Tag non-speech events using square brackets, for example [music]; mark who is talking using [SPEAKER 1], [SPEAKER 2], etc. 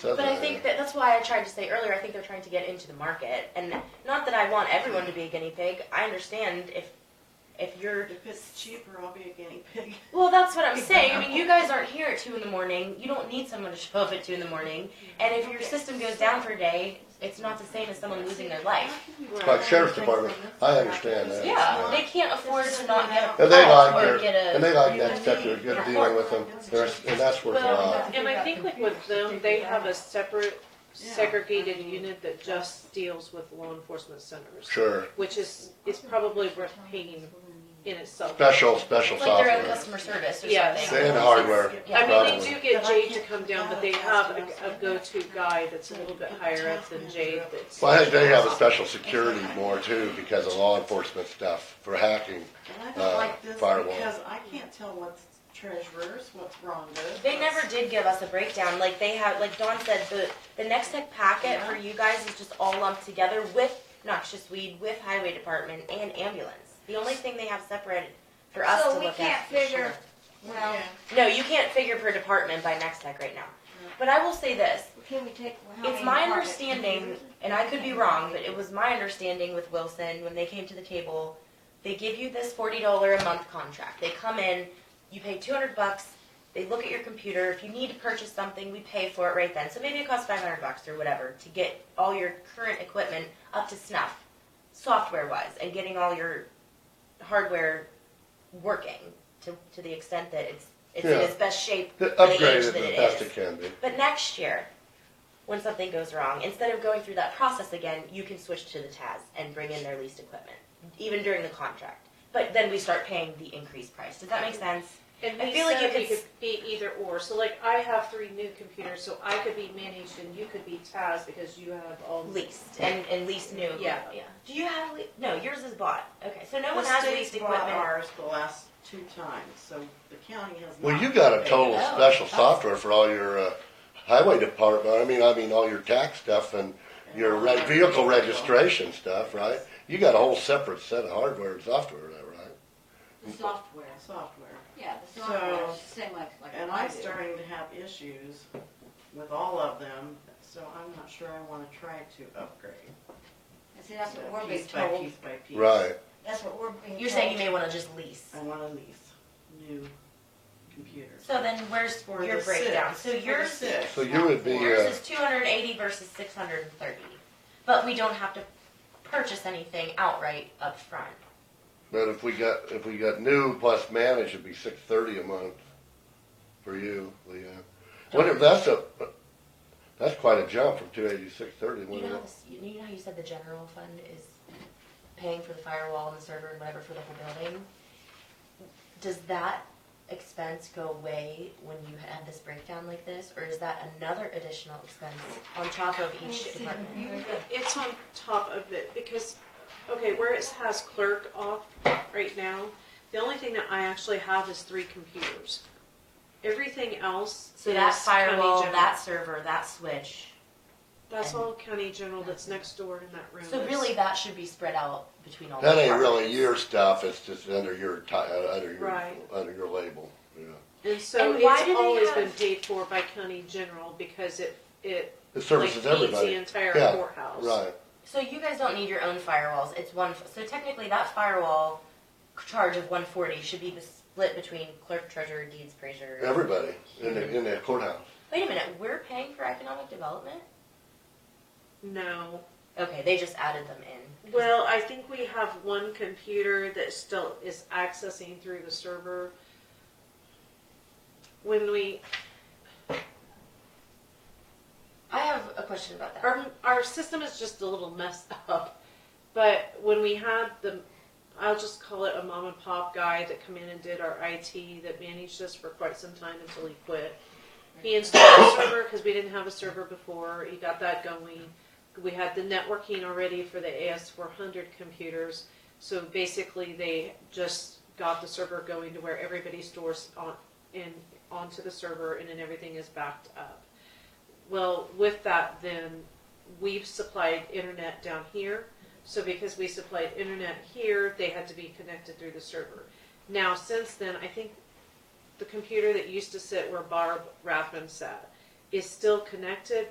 [SPEAKER 1] So
[SPEAKER 2] But I think that that's why I tried to say earlier. I think they're trying to get into the market, and not that I want everyone to be a guinea pig. I understand if if you're
[SPEAKER 3] If it's cheaper, I'll be a guinea pig.
[SPEAKER 2] well, that's what I'm saying. I mean, you guys aren't here at two in the morning. You don't need someone to show up at two in the morning. And if your system goes down for a day, it's not the same as someone losing their life.
[SPEAKER 1] Like sheriff's department, I understand that.
[SPEAKER 2] Yeah, they can't afford to not get a
[SPEAKER 1] And they
[SPEAKER 2] call
[SPEAKER 1] like
[SPEAKER 2] or
[SPEAKER 1] their,
[SPEAKER 2] get a.
[SPEAKER 1] and they like that stuff, they're good dealing with them, They're- and that's worth a lot.
[SPEAKER 4] Well, and I think like with them, they have a separate segregated unit that just deals with law enforcement centers,
[SPEAKER 1] Sure,
[SPEAKER 4] which is, is probably worth paying in itself.
[SPEAKER 1] special, special
[SPEAKER 2] It's like their own
[SPEAKER 1] software,
[SPEAKER 2] customer service or
[SPEAKER 4] Yeah.
[SPEAKER 2] something.
[SPEAKER 1] and hardware,
[SPEAKER 4] I mean,
[SPEAKER 1] probably.
[SPEAKER 4] they do get Jade to come down, but they have a, a go-to guy that's a little bit higher up than Jade that's.
[SPEAKER 1] Well, I think they have a special security more too, because of law enforcement stuff, for hacking.
[SPEAKER 3] And I
[SPEAKER 1] Uh,
[SPEAKER 3] don't like this
[SPEAKER 1] firewall.
[SPEAKER 3] because I can't tell what's treasurer's, what's Rhonda's.
[SPEAKER 2] They never did give us a breakdown. Like they have, like Dawn said, the the next tech packet for you guys is just all lumped together with noxious weed, with highway department, and ambulance. The only thing they have separate for us
[SPEAKER 5] So
[SPEAKER 2] to
[SPEAKER 5] we
[SPEAKER 2] look
[SPEAKER 5] can't
[SPEAKER 2] at. for
[SPEAKER 5] figure-
[SPEAKER 2] sure.
[SPEAKER 5] Well,
[SPEAKER 3] Yeah.
[SPEAKER 2] No, you can't figure per department by next tech right now.
[SPEAKER 5] Mm.
[SPEAKER 2] But I will say this:
[SPEAKER 5] can we take? how
[SPEAKER 2] it's
[SPEAKER 5] many
[SPEAKER 2] my
[SPEAKER 5] apartments?
[SPEAKER 2] understanding, and I could be wrong, but it was my understanding with Wilson when they came to the table, they give you this forty dollar a month contract. They come in, you pay two hundred bucks, they look at your computer. If you need to purchase something, we pay for it right then. So maybe it costs five hundred bucks or whatever to get all your current equipment up to snuff, software wise, and getting all your hardware working to to the extent that it's it's in
[SPEAKER 1] Yeah.
[SPEAKER 2] its best shape
[SPEAKER 1] They
[SPEAKER 2] for the
[SPEAKER 1] Upgrade
[SPEAKER 2] age
[SPEAKER 1] it
[SPEAKER 2] that
[SPEAKER 1] the
[SPEAKER 2] it
[SPEAKER 1] best
[SPEAKER 2] is.
[SPEAKER 1] it can be.
[SPEAKER 2] But next year, when something goes wrong, instead of going through that process again, you can switch to the TAS and bring in their leased equipment, even during the contract. But then we start paying the increased price. Does that make sense?
[SPEAKER 4] And
[SPEAKER 2] I
[SPEAKER 4] we
[SPEAKER 2] feel like
[SPEAKER 4] said
[SPEAKER 2] you
[SPEAKER 4] we
[SPEAKER 2] could-
[SPEAKER 4] could be either or, so like I have three new computers, so I could be managed and you could be Taz because you have all.
[SPEAKER 2] Leased and, and leased new.
[SPEAKER 4] Yeah.
[SPEAKER 2] equipment, Yeah. Do you have le- no? Yours is bought. Okay, so no
[SPEAKER 3] The
[SPEAKER 2] one has
[SPEAKER 3] state's
[SPEAKER 2] leased
[SPEAKER 3] bought
[SPEAKER 2] equipment.
[SPEAKER 3] ours the last two times, so the county has not.
[SPEAKER 1] Well, you got a total
[SPEAKER 2] Oh.
[SPEAKER 1] special software for all your, uh, highway department, I mean, I mean, all your tax stuff and your re- vehicle registration stuff, right? You got a whole separate set of hardware and software, is that right?
[SPEAKER 6] The software,
[SPEAKER 3] Software.
[SPEAKER 6] yeah, the software,
[SPEAKER 3] So-
[SPEAKER 6] it's the same like, like.
[SPEAKER 3] And
[SPEAKER 6] I
[SPEAKER 3] I'm
[SPEAKER 6] do.
[SPEAKER 3] starting to have issues with all of them, so I'm not sure I wanna try to upgrade.
[SPEAKER 6] And see, that's what we're being
[SPEAKER 3] Piece by
[SPEAKER 6] told,
[SPEAKER 3] Piece by piece.
[SPEAKER 1] Right,
[SPEAKER 6] that's what we're being told.
[SPEAKER 2] You're saying you may want to just lease.
[SPEAKER 3] I want to lease new computers.
[SPEAKER 2] So then where's
[SPEAKER 3] For
[SPEAKER 2] your
[SPEAKER 3] the
[SPEAKER 2] breakdown?
[SPEAKER 3] six.
[SPEAKER 2] So
[SPEAKER 3] For the
[SPEAKER 2] yours
[SPEAKER 3] six,
[SPEAKER 1] So you
[SPEAKER 3] not
[SPEAKER 1] would be,
[SPEAKER 3] four.
[SPEAKER 2] Yours
[SPEAKER 1] Yeah.
[SPEAKER 2] is two hundred and eighty versus six hundred and thirty, but we don't have to purchase anything outright up front.
[SPEAKER 1] but if we got, if we got new plus managed, it'd be six thirty a month for you, Leanne. What if, that's a, that's quite a jump from two eighty to six thirty,
[SPEAKER 2] You know,
[SPEAKER 1] wouldn't
[SPEAKER 2] how
[SPEAKER 1] it?
[SPEAKER 2] this, you you know how you said the general fund is paying for the firewall and the server and whatever for the whole building? Does that expense go away when you have this breakdown like this, or is that another additional expense on top of each department?
[SPEAKER 4] It's on top of it because, okay, where it has clerk off right now, the only thing that I actually have is three computers. Everything else
[SPEAKER 2] So
[SPEAKER 4] is
[SPEAKER 2] that
[SPEAKER 4] county
[SPEAKER 2] firewall,
[SPEAKER 4] general.
[SPEAKER 2] that server, that switch,
[SPEAKER 4] That's all county general that's next door in that room.
[SPEAKER 2] so
[SPEAKER 4] is-
[SPEAKER 2] really that should be spread out between all the
[SPEAKER 1] That ain't
[SPEAKER 2] departments.
[SPEAKER 1] really your stuff, it's just under your ti- uh, under your,
[SPEAKER 4] Right.
[SPEAKER 1] under your label, yeah.
[SPEAKER 4] And so
[SPEAKER 2] And why
[SPEAKER 4] it's
[SPEAKER 2] do they
[SPEAKER 4] always
[SPEAKER 2] have-
[SPEAKER 4] been paid for by county general because it, it
[SPEAKER 1] It
[SPEAKER 4] like
[SPEAKER 1] services
[SPEAKER 4] feeds
[SPEAKER 1] everybody.
[SPEAKER 4] the entire
[SPEAKER 1] Yeah,
[SPEAKER 4] courthouse.
[SPEAKER 1] Right,
[SPEAKER 2] So you guys don't need your own firewalls. It's one. So technically, that firewall charge of one forty should be the split between clerk, treasurer, deeds, praiser.
[SPEAKER 1] everybody in the, in the courthouse.
[SPEAKER 2] Wait a minute. We're paying for economic development.
[SPEAKER 4] No.
[SPEAKER 2] Okay, they just added them in.
[SPEAKER 4] Well, I think we have one computer that still is accessing through the server. When we,
[SPEAKER 2] I have a question about that.
[SPEAKER 4] our, our system is just a little messed [laughs] up, but when we had the, I'll just call it a mom and pop guy that come in and did our IT that managed us for quite some time until he quit. He installed a server because we didn't have a server before. He got that going. We had the networking already for the AS400 computers. So basically, they just got the server going to where everybody stores on in onto the server, and then everything is backed up. Well, with that, then we've supplied internet down here. So because we supplied internet here, they had to be connected through the server. Now, since then, I think the computer that used to sit where Barb Rathman sat is still connected,